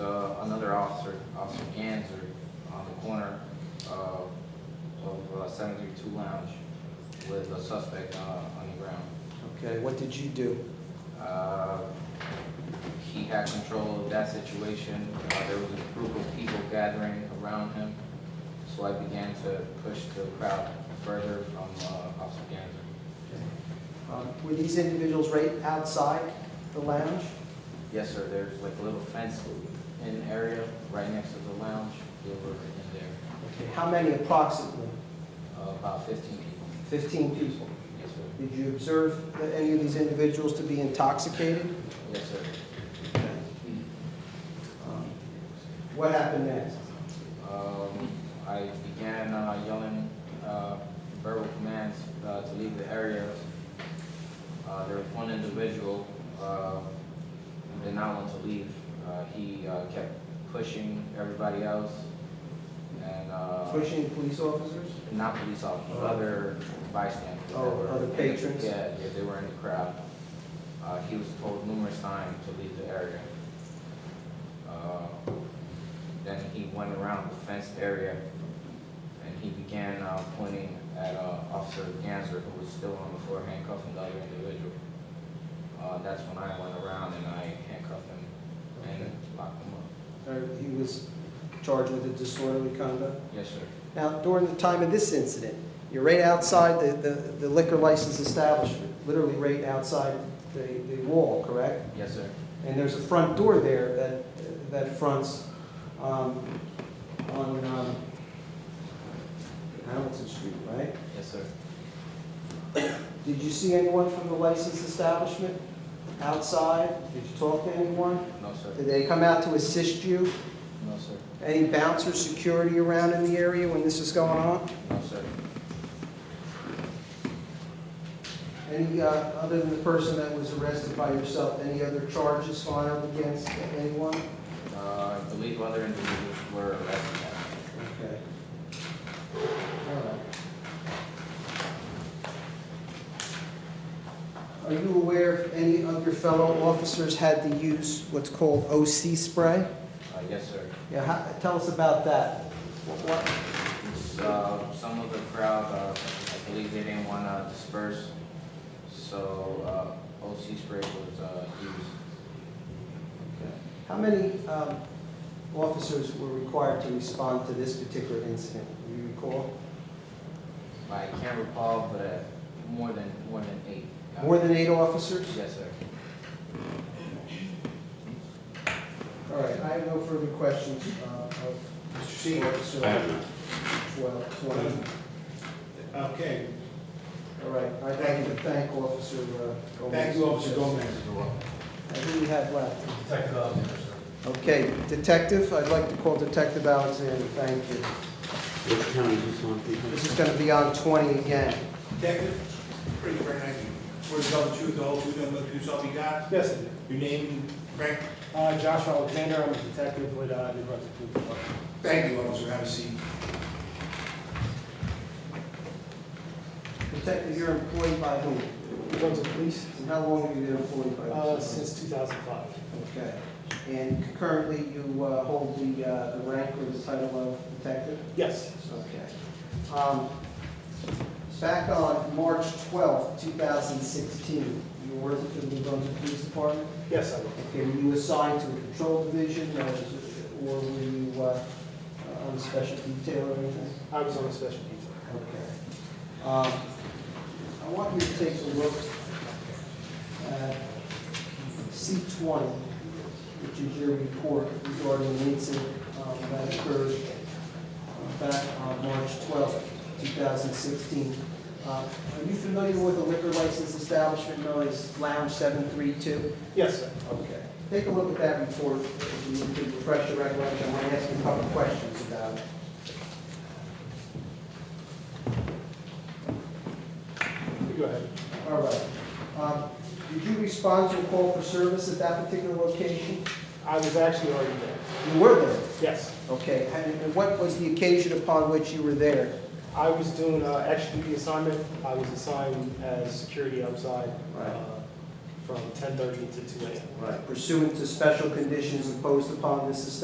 uh, on the corner uh, of uh, 732 Lounge with a suspect uh, on the ground. Okay, what did you do? Uh, He had control of that situation. Uh, There was a group of people gathering around him, so I began to push the crowd further from uh, Officer Ganser. Um, Were these individuals right outside the lounge? Yes, sir, there's like a little fence in area right next to the lounge. They were in there, Okay, How many approximately? uh, about 15 people. Fifteen people. Yes, sir. Did you observe that any of these individuals to be intoxicated? Yes, sir. Um, What happened next? Um, I began uh, yelling uh, verbal commands uh, to leave the area. Uh, There was one individual uh, who did not want to leave. Uh, He uh, kept pushing everybody else and uh, Pushing police officers? not police officers, other bystanders. that Oh, were- other patrons? Yeah, yeah, they were in the crowd. Uh, He was told numerous times to leave the area. Uh, Then he went around the fenced area and he began uh, pointing at uh, Officer Ganser, who was still on the floor handcuffing the other individual. Uh, That's when I went around and I handcuffed him and locked him up. Or he was charged with a disorderly conduct? Yes, sir. Now, during the time of this incident, you're right outside the- the the liquor license establishment, literally right outside the the wall, correct? Yes, sir. And there's a front door there that that fronts um, on um, Hamilton Street, right? Yes, sir. Did you see anyone from the license establishment outside? Did you talk to anyone? No, sir. Did they come out to assist you? No, sir. Any bouncer security around in the area when this is going on? No, sir. Any, uh, other than the person that was arrested by yourself, any other charges filed against anyone? Uh, I believe other individuals were arrested. Okay. All right. Are you aware if any of your fellow officers had to use what's called OC spray? Uh, yes, sir. Yeah, how, tell us about that. What, So, some of the crowd, uh, I believe they didn't want to disperse, so, uh, OC spray was, uh, used. how many, um, officers were required to respond to this particular incident? Do you recall? I can't recall, but, uh, more than, more than eight. More than eight officers? Yes, sir. All right, I have no further questions uh, of Mr. Seaver, so I have none. well, twenty. Okay, All right, I'd like to thank Officer uh, Gomez. thank you, Officer Gomez. And Who do we have left? Detective Alexander, sir. Okay, Detective, I'd like to call Detective Alexander, thank you. Which county is this on? This is gonna be on twenty again. Detective, pretty frank, we're telling the truth, the whole truth, and the truth, all we got. Yes, Your name, Frank, uh, Joshua Alexander, I'm a detective with uh, the Brunswick Police Department. thank you, officer, have a seat. Detective, you're employed by whom? Brunswick Police? And how long have you been employed by? Uh, this? since 2005. Okay, and currently you uh, hold the uh, the rank or the title of Detective? Yes. Okay. Um, Back on March twelfth, two thousand sixteen, you were working for the New Brunswick Police Department? Yes, I will. Okay, were you assigned to a patrol division, or was it- or were you uh, on special detail or anything? I was on a special detail. Okay. Um, I want you to take a look at C Uh, twenty, which is your report regarding the incident um, that occurred uh, back on March twelfth, two thousand sixteen. Uh, Are you familiar with the liquor license establishment known as Lounge seven three two? Yes, sir. Okay. Take a look at that report, if you need to refresh your recollection, I'm gonna ask you a couple of questions about it. You Go ahead. All right. Um, Did you respond to a call for service at that particular location? I was actually already there. You were there. Yes. Okay, and and what was the occasion upon which you were there? I was doing uh, extra duty assignment. I was assigned as security outside Right. uh, from 10:30 to 2 a.m. Pursuant to special conditions imposed upon this establishment